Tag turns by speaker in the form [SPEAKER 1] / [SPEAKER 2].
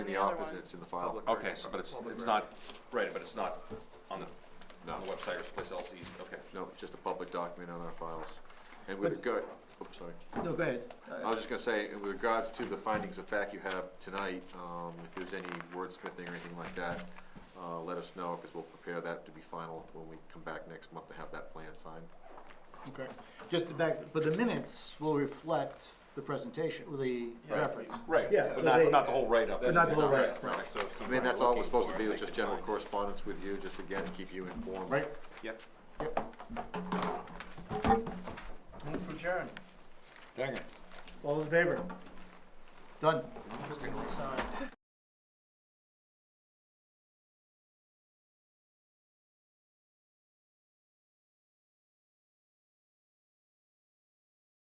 [SPEAKER 1] the
[SPEAKER 2] other one.
[SPEAKER 1] opposites in the file.
[SPEAKER 3] Oh, Okay, so, but it's, it's not, right, but it's not on the,
[SPEAKER 1] No.
[SPEAKER 3] on the website or someplace else, easy, okay.
[SPEAKER 1] No, just a public document on our files. And with regard, oops, sorry.
[SPEAKER 4] No, go ahead.
[SPEAKER 1] I was just gonna say, and with regards to the findings of fact you have tonight, um, if there's any wordsmithing or anything like that, uh, let us know, because we'll prepare that to be final when we come back next month to have that plan signed.
[SPEAKER 4] Okay, just the back, but the minutes will reflect the presentation, the reference.
[SPEAKER 3] Right,
[SPEAKER 4] Yeah,
[SPEAKER 3] but
[SPEAKER 4] so
[SPEAKER 3] not,
[SPEAKER 4] they-
[SPEAKER 3] not the whole write-up.
[SPEAKER 4] But not the whole write-up,
[SPEAKER 3] Right,
[SPEAKER 4] right.
[SPEAKER 3] so if
[SPEAKER 1] I mean, that's
[SPEAKER 3] somebody
[SPEAKER 1] all we're
[SPEAKER 3] looking
[SPEAKER 1] supposed to
[SPEAKER 3] for
[SPEAKER 1] do,
[SPEAKER 3] it,
[SPEAKER 1] is
[SPEAKER 3] they
[SPEAKER 1] just
[SPEAKER 3] can
[SPEAKER 1] general
[SPEAKER 3] find it.
[SPEAKER 1] correspondence with you, just again, keep you informed.
[SPEAKER 4] Right?
[SPEAKER 3] Yep.
[SPEAKER 4] Move to adjourn. All in favor? Done.